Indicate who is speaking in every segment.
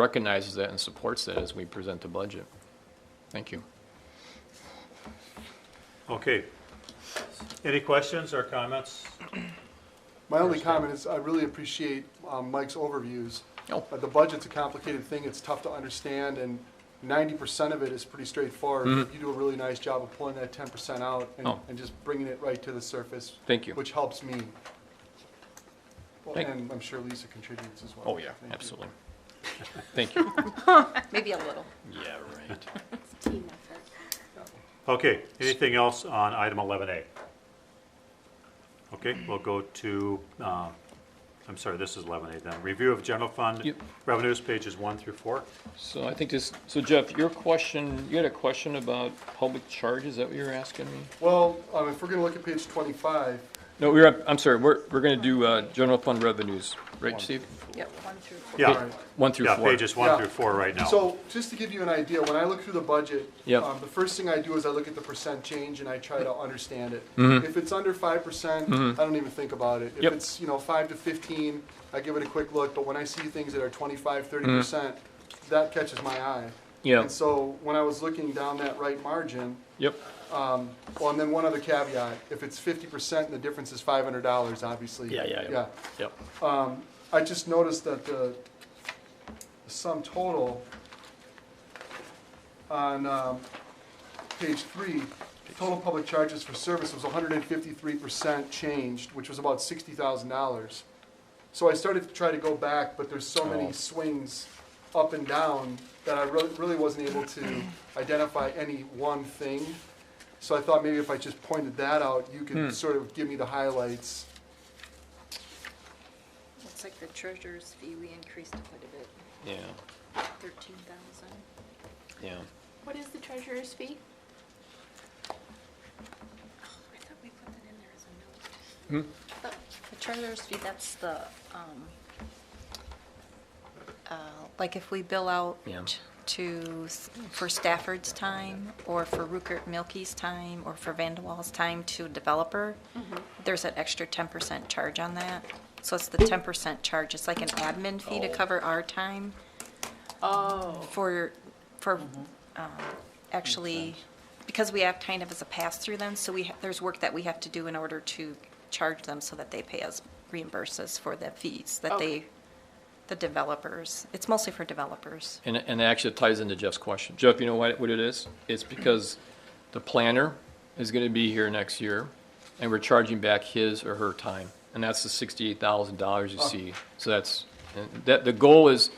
Speaker 1: recognizes that and supports that as we present the budget. Thank you.
Speaker 2: Okay. Any questions or comments?
Speaker 3: My only comment is, I really appreciate um, Mike's overviews.
Speaker 1: Oh.
Speaker 3: Uh, The budget's a complicated thing, it's tough to understand, and ninety percent of it is pretty straightforward. You do a really nice job of pulling that ten percent out and,
Speaker 1: Mm-hmm. Oh.
Speaker 3: and just bringing it right to the surface.
Speaker 1: Thank you.
Speaker 3: Which helps me. Well,
Speaker 1: Thank-
Speaker 3: And I'm sure Lisa contributes as well.
Speaker 1: Oh, yeah,
Speaker 3: Thank you.
Speaker 1: absolutely. Thank you.
Speaker 4: Maybe a little.
Speaker 1: Yeah, right.
Speaker 5: Team effort.
Speaker 2: Okay, anything else on item 11A? Okay, we'll go to, um, I'm sorry, this is 11A then. Review of general fund
Speaker 1: Yep.
Speaker 2: revenues, pages one through four.
Speaker 1: So I think this, so Jeff, your question, you had a question about public charge, is that what you were asking me?
Speaker 3: Well, um, if we're gonna look at page twenty-five,
Speaker 1: No, we're, up- I'm sorry, we're, we're gonna do, uh, general fund revenues, right, Steve?
Speaker 4: Yep, one through four.
Speaker 2: Yeah,
Speaker 3: Alright.
Speaker 1: One through
Speaker 2: yeah,
Speaker 1: four.
Speaker 2: pages one
Speaker 3: Yeah.
Speaker 2: through four right now.
Speaker 3: So, just to give you an idea, when I look through the budget,
Speaker 1: Yep.
Speaker 3: um, the first thing I do is I look at the percent change and I try to understand it. If it's under five percent, I don't even think about it. If
Speaker 1: Mm-hmm. Yep.
Speaker 3: it's you know five to fifteen, I give it a quick look. But when I see things that are 25, 30 percent, that catches my eye.
Speaker 1: Mm-hmm. Yeah.
Speaker 3: And so when I was looking down that right margin,
Speaker 1: Yep,
Speaker 3: well, and then one other caveat: if it's fifty percent and the difference is five hundred dollars, obviously.
Speaker 1: Yeah, yeah, yeah.
Speaker 3: Yeah.
Speaker 1: yep.
Speaker 3: I just noticed that the the sum total on um, page three, total public charges for service was 153% changed, which was about $60,000. So I started to try to go back, but there's so
Speaker 1: Oh.
Speaker 3: many swings up and down that I really, really wasn't able to identify any one thing. So I thought maybe if I just pointed that out, you could sort of give me the highlights.
Speaker 4: Looks like the treasurer's fee, we increased it quite a bit,
Speaker 1: Yeah,
Speaker 4: thirteen thousand.
Speaker 1: yeah.
Speaker 5: What is the treasurer's fee?
Speaker 4: Oh, I thought we put that in there as a
Speaker 1: Hmm?
Speaker 4: note. But The treasurer's fee, that's the, um, uh, like if we bill out
Speaker 1: Yeah.
Speaker 4: t- to, s- for Stafford's time, or for Rukert Milky's time, or for Vandewall's time to a developer,
Speaker 1: Mm-hmm.
Speaker 4: there's an extra ten percent charge on that. So it's the ten percent charge, it's like an admin fee to
Speaker 1: Oh.
Speaker 4: cover our time.
Speaker 5: Oh.
Speaker 4: for, for,
Speaker 1: Mm-hmm.
Speaker 4: um, actually, because we have kind of as a pass-through then, so we, ha- there's work that we have to do in order to charge them so that they pay us, reimburse us for the fees that
Speaker 5: Okay.
Speaker 4: they, the developers, it's mostly for developers.
Speaker 1: And, and it actually ties into Jeff's question. Jeff, you know what, what it is? It's because the planner is gonna be here next year, and we're charging back his or her time. And that's the sixty-eight thousand dollars you see. So that's, and that, the goal is,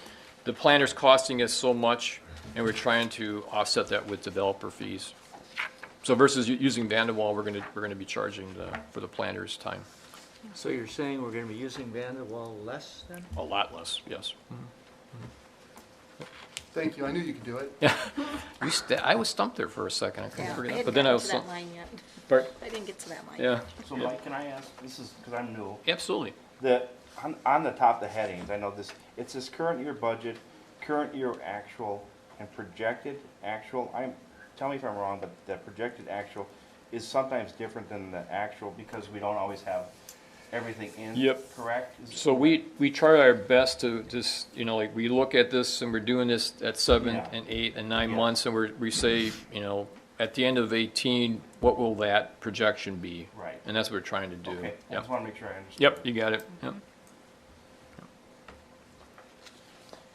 Speaker 1: the planner's costing us so much, and we're trying to offset that with developer fees. So versus u- using Vandewall, we're gonna, we're gonna be charging the, for the planner's time.
Speaker 6: So you're saying we're gonna be using Vanderwall less than?
Speaker 1: A lot less, yes.
Speaker 3: Thank you, I knew you could do it.
Speaker 1: We st- I was stumped there for a second, I couldn't figure it out,
Speaker 4: hadn't
Speaker 1: but then I
Speaker 4: gotten
Speaker 1: was.
Speaker 4: to that
Speaker 1: stum-
Speaker 4: line yet.
Speaker 1: Pardon?
Speaker 4: I didn't get to that line.
Speaker 1: Yeah,
Speaker 7: So
Speaker 1: Yeah.
Speaker 7: Mike, can I ask, this is, because I'm new,
Speaker 1: absolutely.
Speaker 7: the, on, on the top, the headings, I know this, it says current year budget, current year actual, and projected actual, I'm, tell me if I'm wrong, but the projected actual is sometimes different than the actual, because we don't always have everything in,
Speaker 1: Yep.
Speaker 7: correct? Is-
Speaker 1: So we, we try our best to just, you know, like, we look at this and we're doing this at seven
Speaker 7: Yeah.
Speaker 1: and eight and nine
Speaker 7: Yeah.
Speaker 1: months, and we're, we say, you know, at the end of eighteen, what will that projection be?
Speaker 7: Right.
Speaker 1: And that's what we're trying to do.
Speaker 7: Okay, I
Speaker 1: Yep.
Speaker 7: just want to make sure I understand.
Speaker 1: Yep, you got it, yep.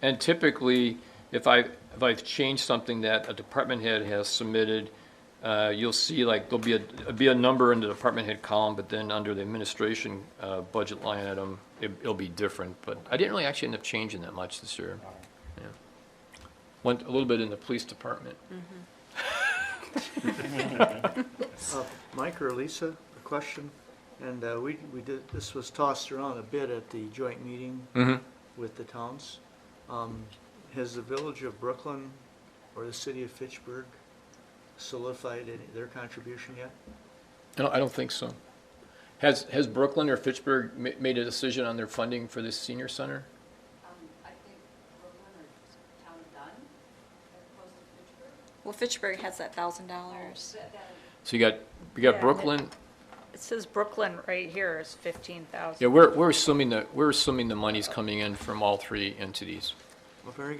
Speaker 1: And typically, if I, if I've changed something that a department head has submitted, uh, you'll see like, there'll be a, there'll be a number in the department head column, but then under the administration, uh, budget line item, it, it'll be different, but I didn't really actually end up changing that much this year. Yeah. Went a little bit in the police department.
Speaker 6: Uh, Mike or Lisa, a question? And uh, we, we did, this was tossed around a bit at the joint meeting with the towns. Um, Has the village of Brooklyn or the city of Fitchburg solidified any, their contribution yet?
Speaker 1: I don't, I don't think so. Has, has Brooklyn or Fitchburg ma- made a decision on their funding for this senior center?
Speaker 8: Um, I think Brooklyn or Town of Dunn, as opposed to Pittsburgh.
Speaker 4: Well, Fitchburg has that thousand dollars.
Speaker 8: That- that-
Speaker 1: So you got, you
Speaker 4: Yeah,
Speaker 1: got
Speaker 4: and
Speaker 1: Brooklyn,
Speaker 4: It says Brooklyn right here is fifteen thousand.
Speaker 1: yeah, we're, we're assuming that, we're assuming the money's coming in from all three entities.
Speaker 6: Well, very